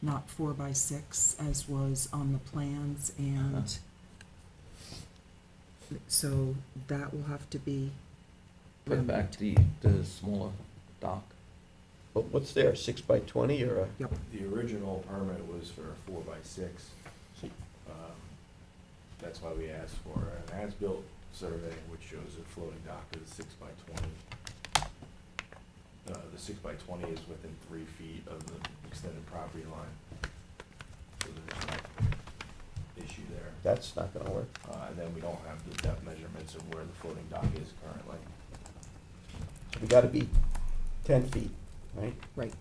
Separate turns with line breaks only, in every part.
not four by six as was on the plans and so that will have to be um,
Put back the, the smaller dock.
But what's there, six by twenty or a?
The original permit was for a four by six. Um, That's why we asked for an as-built survey, which shows a floating dock is six by twenty. Uh, the six by twenty is within three feet of the extended property line. So there's no issue there.
That's not gonna work.
Uh, and then we don't have the depth measurements of where the floating dock is currently.
We gotta be ten feet, right?
Right.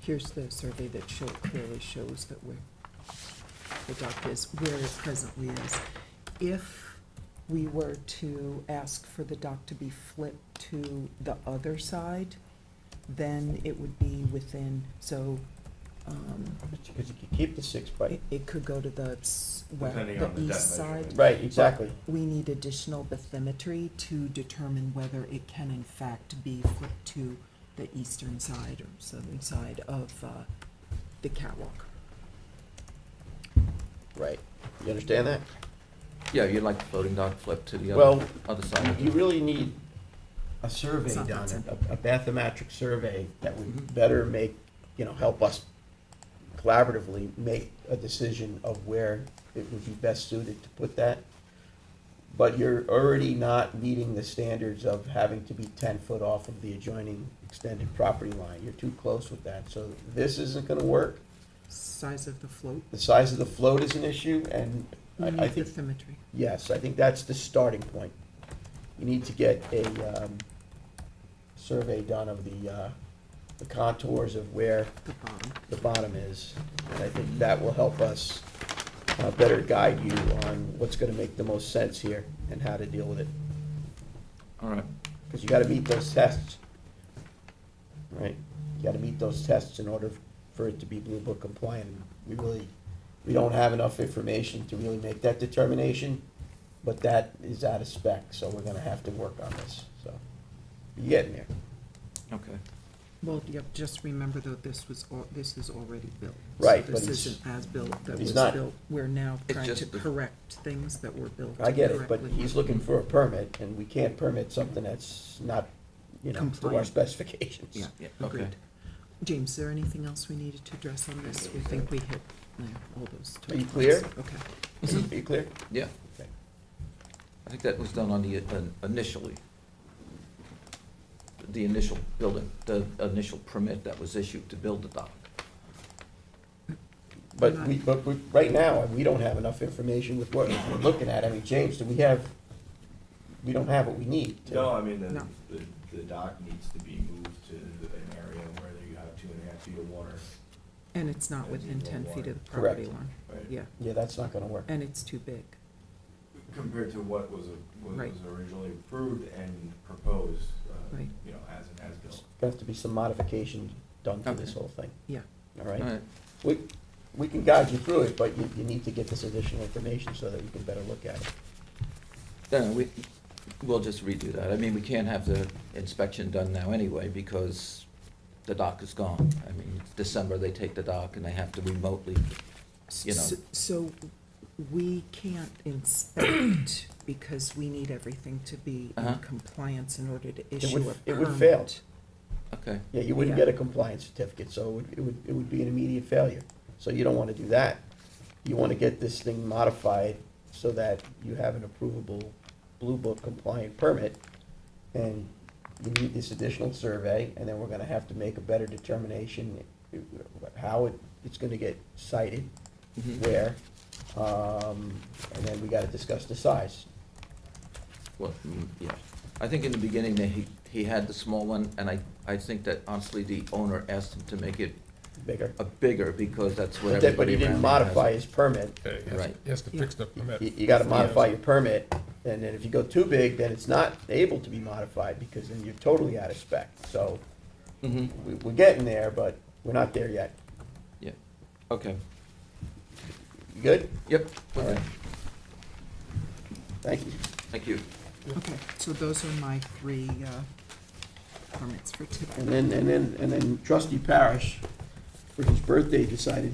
Here's the survey that show, clearly shows that where the dock is, where it presently is. If we were to ask for the dock to be flipped to the other side, then it would be within, so, um,
But you- Cause you could keep the six by,
it, it could go to the s- west,
Depending on
the
the
east
depth measurement.
side.
right, exactly.
We need additional bathymetry to determine whether it can in fact be flipped to the eastern side or southern side of uh, the catwalk.
Right. You understand that?
Yeah, you'd like the floating dock flipped to the
Well,
other, other side of
You
it.
really need a survey
It's not that Mm-hmm.
done,
simple.
a, a bathymetric survey that would better make, you know, help us collaboratively make a decision of where it would be best suited to put that. But you're already not meeting the standards of having to be ten foot off of the adjoining extended property line. You're too close with that, so this isn't gonna work.
Size of the float,
The size of the float is an issue, and
we
I, I
need
think
bathymetry.
Yes, I think that's the starting point. You need to get a um, survey done of the uh, the contours of where
the bottom.
the bottom is. And I think that will help us uh, better guide you on what's going to make the most sense here and how to deal with it.
All right,
Because you got to meet those tests, right? You got to meet those tests in order for it to be Blue Book compliant. We really, we don't have enough information to really make that determination, but that is out of spec, so we're gonna have to work on this, so. You're getting there.
okay.
Well, yep, just remember though, this was, al- this is already built. So
Right, but
This
he's-
isn't as built, that
he's
was
not-
built. We're now
It's
trying to
just the-
correct things that were built
I get it, but
correctly.
he's looking for a permit, and we can't permit something that's not, you know, to our
Compliant.
specifications.
Yeah,
Yeah, okay.
agreed. James, is there anything else we needed to address on this? We think we hit yeah, all those.
Are you
touch points.
clear?
Okay.
Are you clear?
Yeah,
Okay.
I think that was done on the, uh, initially. The initial building, the initial permit that was issued to build the dock.
But we, but we, right now, we don't have enough information with what we're looking at. I mean, James, do we have, we don't have what we need. to-
No, I mean, the,
No.
the- the dock needs to be moved to an area where you have two and a half feet of water,
And it's not within ten feet of the property line.
right?
Yeah,
Yeah, that's not gonna work.
and it's too big.
compared to what was, what
Right.
was originally approved and proposed, uh,
Right.
you know, as an as-built.
Gonna have to be some modification done to this
Okay.
whole thing,
Yeah,
all
All
right?
right,
We, we can guide you through it, but you, you need to get this additional information so that you can better look at it.
then we, we'll just redo that. I mean, we can't have the inspection done now anyway because the dock is gone. I mean, December, they take the dock and they have to remotely,
S-
You know.
s- So we can't inspect because we need everything to be in
Uh-huh.
compliance in order to
would-
issue a permit.
it would fail.
okay.
Yeah, you wouldn't
Yeah.
get a compliance certificate, so it would, it would, it would be an immediate failure. So you don't wanna do that. You wanna get this thing modified so that you have an approvable Blue Book compliant permit. And you need this additional survey, and then we're gonna have to make a better determination eh, how it, it's gonna get cited,
Mhm.
where. Um, and then we gotta discuss the size.
Well, mm, yeah, I think in the beginning, that he, he had the small one, and I, I think that honestly, the owner asked him to make it
Bigger.
a bigger, because that's what
But that-
everybody
but he didn't
around him has.
modify his permit.
Yeah, he has-
Right.
He has to fix the
You,
permit.
you gotta modify your permit, and then if you go too big, then it's not able to be modified, because then you're totally out of spec. So,
Mhm.
we, we're getting there, but we're not there yet.
Yeah, okay,
You good?
yep,
All
okay,
right. Thank you.
thank you.
Okay, so those are my three uh, permits for today.
And then, and then, and then trustee Parish, for his birthday, decided